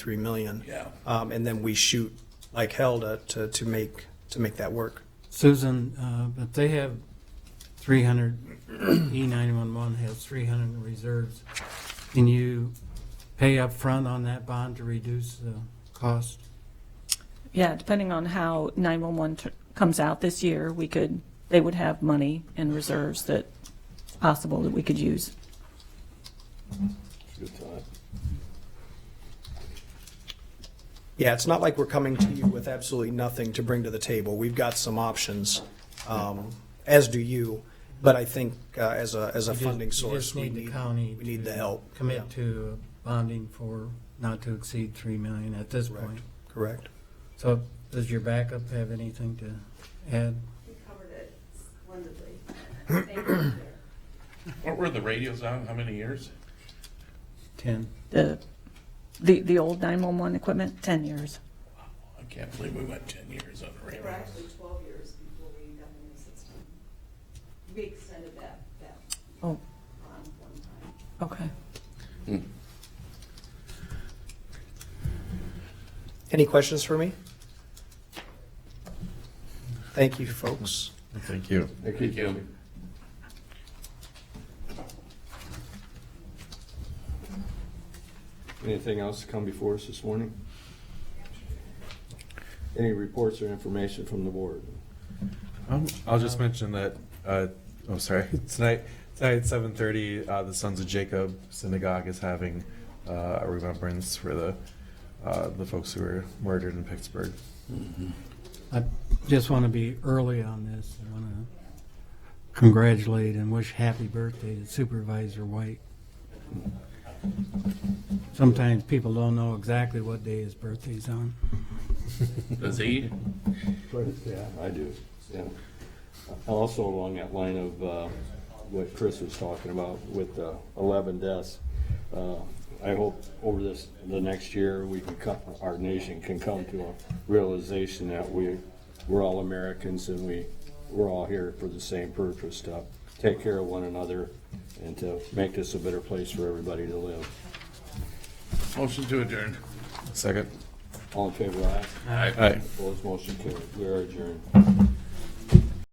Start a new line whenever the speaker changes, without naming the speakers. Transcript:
three million.
Yeah.
Um, and then we shoot like hell to, to, to make, to make that work.
Susan, uh, but they have three hundred, E nine-one-one has three hundred in reserves. Can you pay up front on that bond to reduce the cost?
Yeah, depending on how 911 tr- comes out this year, we could, they would have money in reserves that it's possible that we could use.
Good thought.
Yeah, it's not like we're coming to you with absolutely nothing to bring to the table. We've got some options, um, as do you. But I think, uh, as a, as a
You just-
funding
you just
source, we
need the
need,
county
we need
to
the help. Yeah,
Commit to bonding for not to exceed three million at this
Correct.
point.
Correct.
So does your backup have anything to add?
You covered it splendidly. Thank you. sir.
What were the radios on? How many years?
Ten?
The, the, the old 911 equipment, 10 years.
I can't believe we went ten years on a
They
radio.
were actually 12 years before we got in the system. We extended that, that
Oh,
on one time.
okay.
Any questions for me? Thank you, folks.
Thank you.
Thank you.
Anything else to come before us this morning? Any reports or information from the board?
Um, I'll just mention that. Uh, oh, sorry. Tonight, tonight at seven thirty, uh, the Sons of Jacob Synagogue is having uh, a remembrance for the uh, the folks who were murdered in Pittsburgh.
I just want to be early on this. I want to congratulate and wish happy birthday to Supervisor White. Sometimes people don't know exactly what day his birthday's on.
Does he?
Yeah, I do, yeah. Also along that line of uh, what Chris was talking about with the 11 deaths, uh, I hope over this, the next year, we can come, our nation can come to a realization that we, we're all Americans and we, we're all here for the same purpose, to take care of one another and to make this a better place for everybody to live.
Motion to adjourn.
Second.
All in favor, aye?
Aye.
Aye.
Opposed, motion carried. We are adjourned.